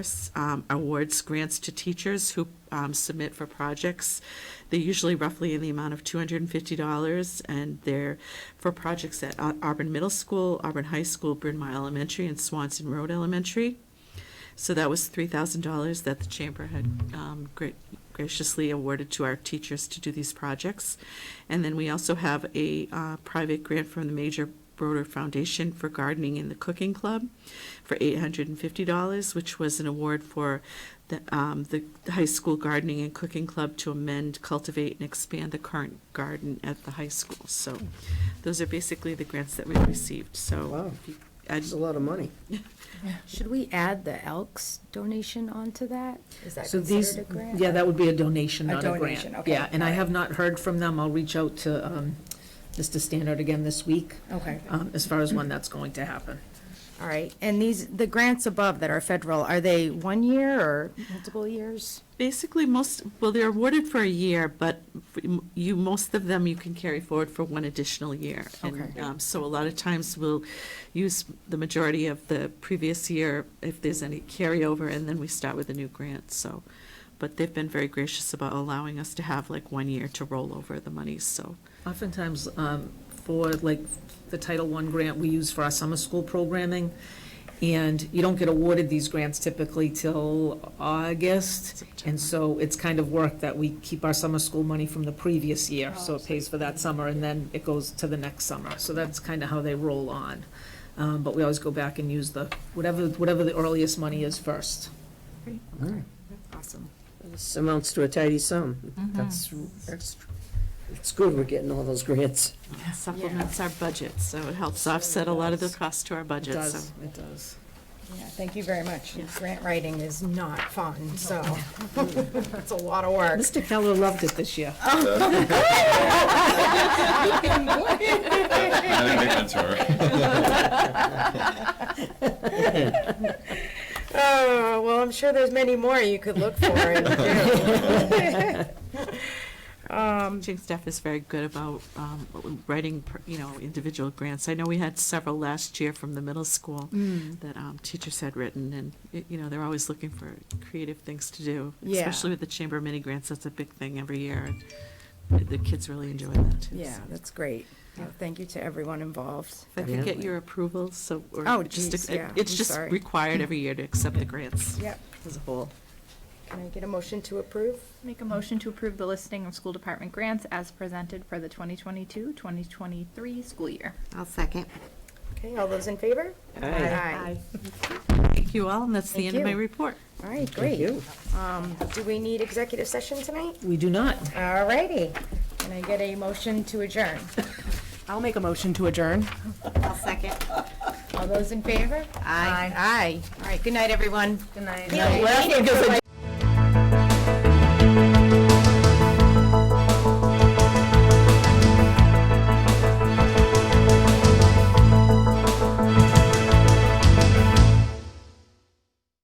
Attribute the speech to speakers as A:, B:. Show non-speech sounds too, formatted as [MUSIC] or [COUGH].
A: um, awards grants to teachers who um, submit for projects. They're usually roughly in the amount of $250, and they're for projects at Au- Auburn Middle School, Auburn High School, Bryn Mawr Elementary, and Swanson Road Elementary. So that was $3,000 that the chamber had um, gra- graciously awarded to our teachers to do these projects. And then we also have a uh, private grant from the Major Broder Foundation for Gardening in the Cooking Club for $850, which was an award for the, um, the high school gardening and cooking club to amend, cultivate, and expand the current garden at the high school. So those are basically the grants that we received, so.
B: Wow.
A: if you-
B: That's a lot of money.
C: Should we add the Elks donation onto that? Is that
D: So these,
C: considered a grant?
D: yeah, that would be a donation,
C: A
D: not a grant.
C: donation, okay,
D: Yeah, and I
C: all right.
D: have not heard from them. I'll reach out to um, Mr. Standard again this week,
C: Okay,
D: um, as far as when that's going to happen.
C: all right. And these, the grants above that are federal, are they one year or multiple years?
A: Basically, most, well, they're awarded for a year, but you, most of them you can carry forward for one additional year. And,
C: Okay.
A: um, So a lot of times we'll use the majority of the previous year if there's any carryover, and then we start with a new grant, so. But they've been very gracious about allowing us to have like one year to roll over the money, so.
D: Oftentimes, um, for like the Title I grant we use for our summer school programming, and you don't get awarded these grants typically till August.
A: September.
D: And so it's kind of work that we keep our summer school money from the previous year, so it pays for that summer, and then it goes to the next summer. So that's kind of how they roll on. Um, But we always go back and use the, whatever, whatever the earliest money is first.
C: Awesome.
B: This amounts to a tidy sum. That's, that's, it's good we're getting all those grants.
A: Supplements our budget, so it helps offset a lot of the cost to our
D: It
A: budget, so.
D: does, it does.
C: Yeah, thank you very much. Grant writing is not fun, so [LAUGHS] it's a lot of
D: [LAUGHS]
C: work.
D: Mr. Keller loved it this year.
E: I think they answer.
C: Oh, well, I'm sure there's many more you could look for. and do. [LAUGHS]
A: Teaching staff is very good about um, writing, you know, individual grants. I know we had several last year from the middle school
C: Mm.
A: that um, teachers had written, and, y- you know, they're always looking for creative things to do.
C: Yeah.
A: Especially with the chamber mini grants, that's a big thing every year, and the kids really enjoy that. too,
C: Yeah,
A: so.
C: that's great. Well, Thank you to everyone involved.
A: If I could get your approval, so. or
C: Oh,
A: just
C: geez,
A: ac-
C: yeah,
A: It's
C: I'm
A: just
C: sorry.
A: required every year to accept the grants
C: Yep.
A: as a whole.
C: Can I get a motion to approve?
F: Make a motion to approve the listing of school department grants as presented for the 2022, 2023 school year.
G: I'll second.
C: Okay, all those in favor? Aye.
A: Thank you all, and that's the
C: Thank
A: end of my
C: you.
A: report.
C: All right,
B: Thank
C: great.
B: you.
C: Um, Do we need executive session tonight?
D: We do not.
C: All righty. Can I get a motion to adjourn?
H: I'll make a motion to adjourn.
G: I'll second.
C: All those in favor? Aye. Aye. All right, good night, everyone. Good night.
D: Laughing because I